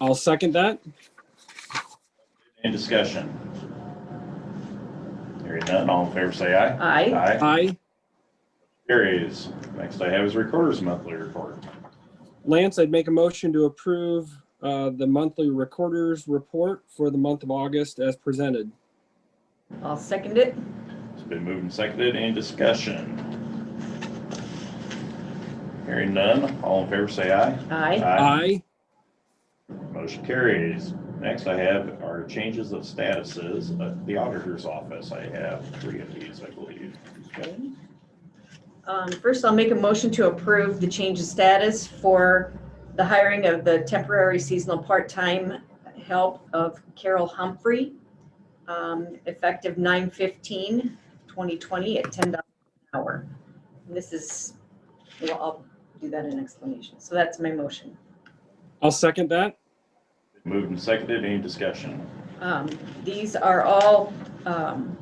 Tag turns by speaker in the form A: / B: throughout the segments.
A: I'll second that.
B: Any discussion? Hearing none, all in favor say aye.
C: Aye.
B: Aye.
A: Aye.
B: Carries. Next I have is Recorder's Monthly Report.
A: Lance, I'd make a motion to approve uh, the monthly recorder's report for the month of August as presented.
C: I'll second it.
B: It's been moved and seconded. Any discussion? Hearing none, all in favor say aye.
A: Aye.
C: Aye.
B: Motion carries. Next I have are changes of statuses at the auditor's office. I have three of these, I believe. Okay.
C: Um, First, I'll make a motion to approve the change of status for the hiring of the temporary seasonal part-time help of Carol Humphrey, um, effective 9 15 2020 at $10 an hour. And This is, well, I'll do that in explanation. So that's my motion.
A: I'll second that.
B: Moved and seconded. Any discussion?
C: Um, These are all um,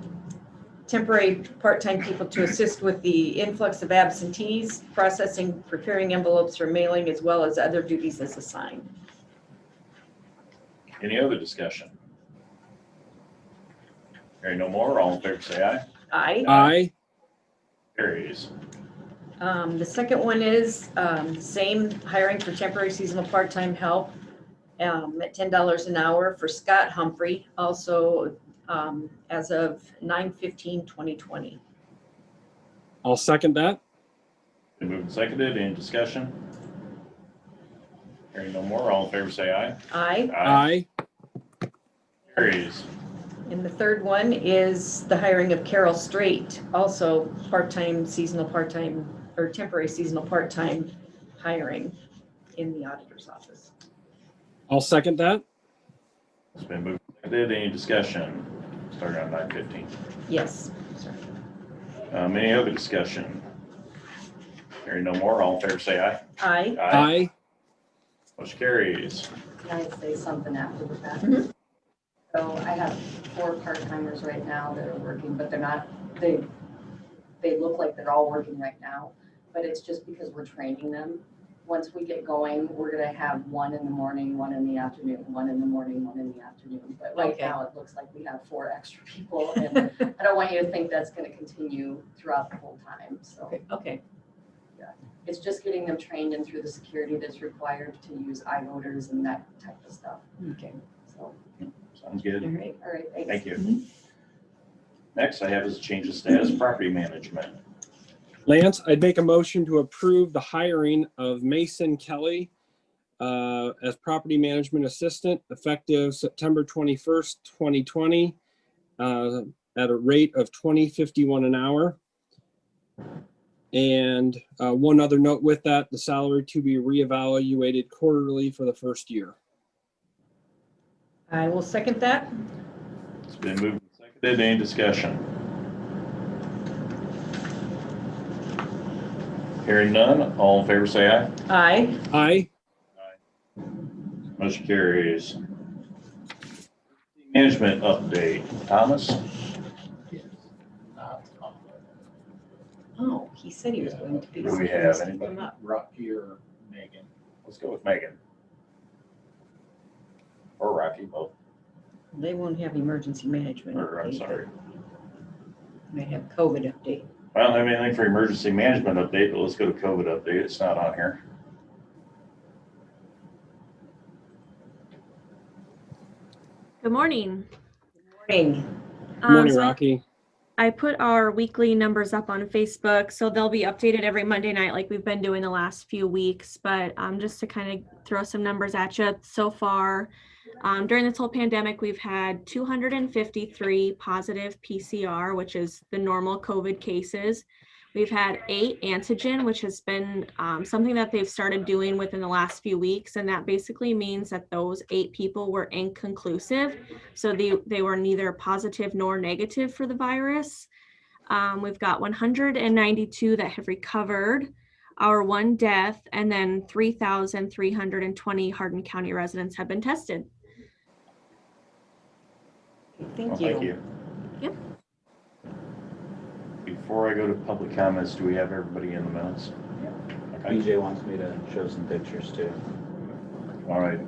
C: temporary, part-time people to assist with the influx of absentees, processing, preparing envelopes for mailing, as well as other duties as assigned.
B: Any other discussion? Hearing no more, all in favor say aye.
C: Aye.
A: Aye.
B: Carries.
C: Um, The second one is um, same hiring for temporary seasonal part-time help um, at $10 an hour for Scott Humphrey, also um, as of 9/15/2020.
A: I'll second that.
B: Been moved and seconded. Any discussion? Hearing no more, all in favor say aye.
C: Aye.
A: Aye.
B: Carries.
C: And the third one is the hiring of Carol Strait, also part-time, seasonal, part-time, or temporary seasonal, part-time hiring in the auditor's office.
A: I'll second that.
B: It's been moved and seconded. Any discussion? Starting on nine fifteen.
C: Yes, sorry.
B: Um, any other discussion? Hearing no more, all in favor say aye.
C: Aye.
A: Aye.
B: Motion carries.
D: Can I say something after the fact?
C: Mhm.
D: So I have four part-timers right now that are working, but they're not, they, they look like they're all working right now, but it's just because we're training them. Once we get going, we're gonna have one in the morning, one in the afternoon, one in the morning, one in the afternoon. But right
C: Okay.
D: now, it looks like we have four extra people, and I don't want you to think that's gonna continue throughout the whole time, so.
C: Okay,
D: It's just getting them trained and through the security that's required to use iVoters and that type of stuff,
C: okay,
D: so.
B: Sounds good.
C: all right.
D: All right, thanks.
B: Thank you.
C: Mhm.
B: Next, I have is change of status, property management.
A: Lance, I'd make a motion to approve the hiring of Mason Kelly uh, as property management assistant effective September 21st, 2020, uh, at a rate of 20.51 an hour. And uh, one other note with that, the salary to be reevaluated quarterly for the first year.
C: I will second that.
B: It's been moved and seconded. Any discussion? Hearing none, all in favor say aye.
C: Aye.
A: Aye.
B: Motion carries. Management update, Thomas?
C: Oh, he said he was going to be.
B: Do we have
C: something
B: anybody?
C: up.
E: Rocky or Megan.
B: Let's go with Megan. Or Rocky, both,
C: They won't have emergency management.
B: or I'm
C: update,
B: sorry.
C: but Might have COVID update.
B: I don't have anything for emergency management update, but let's go to COVID update. It's not on here.
F: Good morning.
C: Morning.
F: Um,
A: Morning,
F: so
A: Rocky.
F: I put our weekly numbers up on Facebook, so they'll be updated every Monday night like we've been doing the last few weeks. But um, just to kind of throw some numbers at you, so far um, during this whole pandemic, we've had 253 positive PCR, which is the normal COVID cases. We've had eight antigen, which has been um, something that they've started doing within the last few weeks. And that basically means that those eight people were inconclusive. So they, they were neither positive nor negative for the virus. Um, we've got 192 that have recovered, our one death, and then 3,320 Hardin County residents have been tested.
B: Well, Oh,
C: Thank
B: Thank
C: you.
B: you.
F: Yep.
B: Before I go to public comments, do we have everybody in the minutes? Okay,
E: BJ wants me to show some pictures too.
B: all right.